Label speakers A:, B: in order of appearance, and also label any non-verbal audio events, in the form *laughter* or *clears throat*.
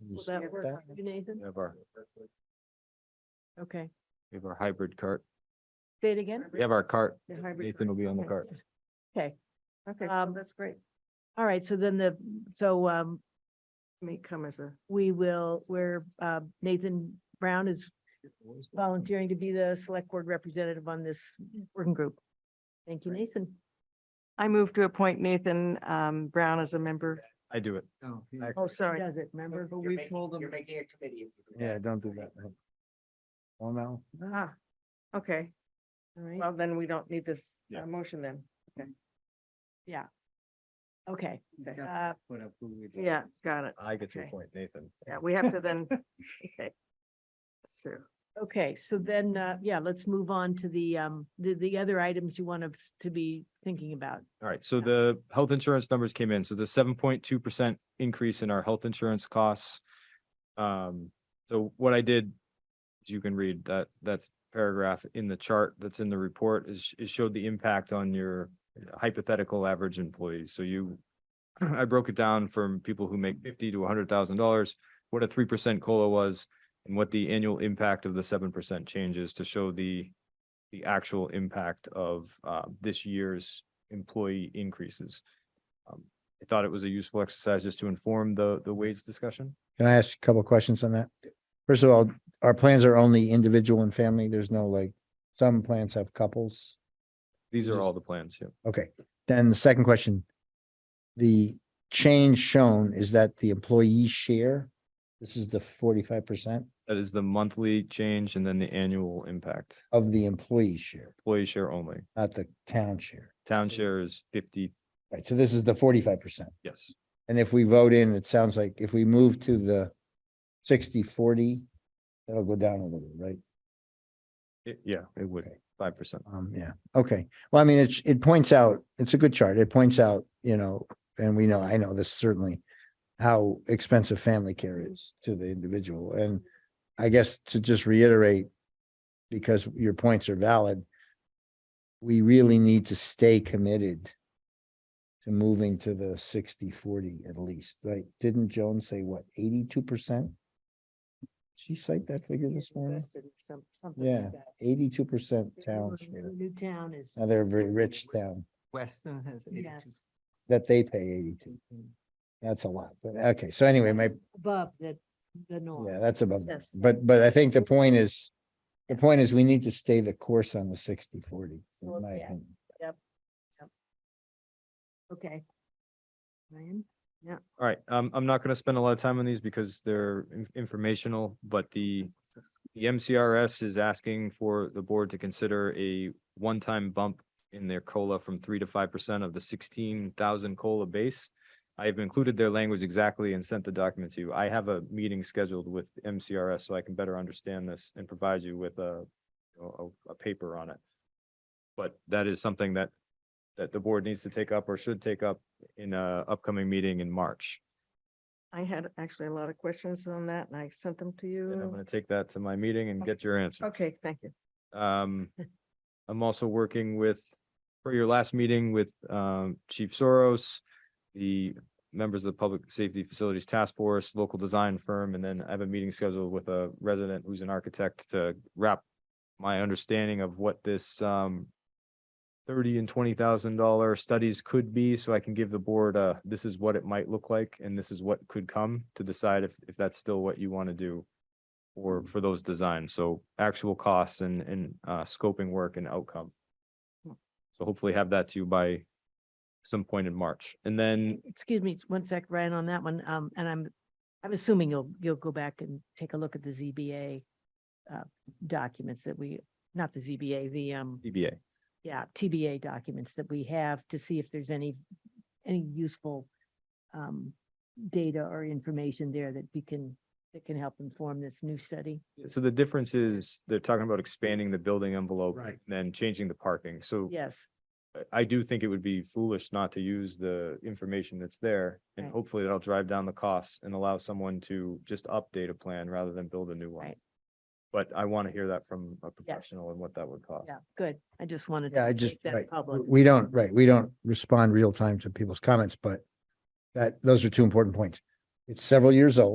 A: We'll
B: Will
A: just
B: that
A: skip
B: work for you, Nathan?
A: We have our,
B: Okay,
A: we have our hybrid cart.
B: say it again.
A: We have our cart.
B: The hybrid
A: Nathan will be on the
B: Okay.
A: cart.
B: Okay,
C: Okay,
B: Um,
C: that's great.
B: all right, so then the, so um,
C: Me come as a.
B: we will, where uh, Nathan Brown is volunteering to be the select board representative on this working group. Thank you, Nathan.
C: I move to appoint Nathan um, Brown as a member.
A: I do it. I-
C: Oh, sorry.
B: Does it, remember?
C: But we've told them.
D: making a committee.
A: Yeah, don't do that. Well, no.
C: Ah, okay.
B: All right.
C: Well, then we don't need this uh,
A: Yeah.
C: motion then.
B: Okay,
C: Okay.
B: uh,
C: Yeah, got it.
A: I get your
C: Okay.
A: point, Nathan.
C: Yeah, we have to then. Okay. That's true.
B: Uh, okay, so then, uh, yeah, let's move on to the, um, the, the other items you want us to be thinking about.
A: All right, so the health insurance numbers came in, so the seven point two percent increase in our health insurance costs. Um, so what I did, as you can read that, that's paragraph in the chart that's in the report is, is showed the impact on your hypothetical average employee, so you. *clears throat* I broke it down from people who make fifty to hundred thousand dollars, what a three percent COLA was, and what the annual impact of the seven percent changes to show the. The actual impact of uh this year's employee increases. Um, I thought it was a useful exercise just to inform the, the wage discussion.
E: Can I ask a couple of questions on that? First of all, our plans are only individual and family. There's no like, some plans have couples.
A: These are all the plans, yeah.
E: Okay, then the second question. The change shown is that the employee share, this is the forty-five percent
A: That is the monthly change and then the annual impact,
E: of the employee share,
A: employee share only.
E: not the town share.
A: Town share is fifty,
E: Right, so this is the forty-five percent.
A: yes,
E: And if we vote in, it sounds like if we move to the 60 40 forty, that'll go down a little, right?
A: It- yeah, it would,
E: Okay.
A: five percent.
E: Um, yeah, okay. Well, I mean, it's, it points out, it's a good chart. It points out, you know, and we know, I know this certainly. How expensive family care is to the individual and I guess to just reiterate. Because your points are valid. We really need to stay committed. To moving to the 60-40 at least, right? Didn't Joan say what, eighty-two percent? She cite that figure this morning? Yeah. Eighty-two percent town share.
B: New town is,
E: Now they're a very rich town
D: Weston has.
B: yes,
E: that they pay eighty-two. That's a lot, but okay, so anyway, my,
B: above the, the norm.
E: yeah, that's above,
B: Yes.
E: but, but I think the point is, the point is we need to stay the course on the sixty forty,
B: Well,
E: in my
B: yeah.
E: opinion.
B: Okay. Ryan?
A: All right, um, I'm not gonna spend a lot of time on these because they're in- informational, but the the MCRS is asking for the board to consider a one-time bump in their COLA from three to five percent of the sixteen thousand COLA base. I have included their language exactly and sent the document to you. I have a meeting scheduled with MCRS so I can better understand this and provide you with a, a, a paper on it. But that is something that, that the board needs to take up or should take up in a upcoming meeting in March.
C: I had actually a lot of questions on that and I sent them to
A: And I'm
C: you.
A: gonna take that to my meeting and get your answer.
C: Okay, thank you.
A: Um, I'm also working with, for your last meeting with, um, Chief Soros, the members of the Public Safety Facilities Task Force, local design firm, and then I have a meeting scheduled with a resident who's an architect to wrap my understanding of what this, um, thirty and twenty thousand dollar studies could be, so I can give the board a, this is what it might look like, and this is what could come to decide if, if that's still what you want to do or for those designs, so actual costs and, and, uh, scoping work and outcome. So hopefully have that to you by some point in March. And then
B: Excuse me, one sec, Ryan, on that one, um, and I'm, I'm assuming you'll, you'll go back and take a look at the ZBA uh, documents that we, not the ZBA, the, um,
A: DBA.
B: yeah, TBA documents that we have to see if there's any, any useful um, data or information there that we can, that can help inform this new study.
A: So the difference is they're talking about expanding the building envelope.
E: Right.
A: Then changing the parking. So
B: Yes,
A: I- I do think it would be foolish not to use the information that's there. And
B: Right.
A: hopefully that'll drive down the costs and allow someone to just update a plan rather than build a new one.
B: Right.
A: But I want to hear that from a professional and what that would cost.
B: yeah, good. I just wanted.
E: Yeah, I
B: to
E: just,
B: make that
E: right,
B: Public.
E: we don't, right, we don't respond real time to people's comments, but that, those are two important points. It's several years old.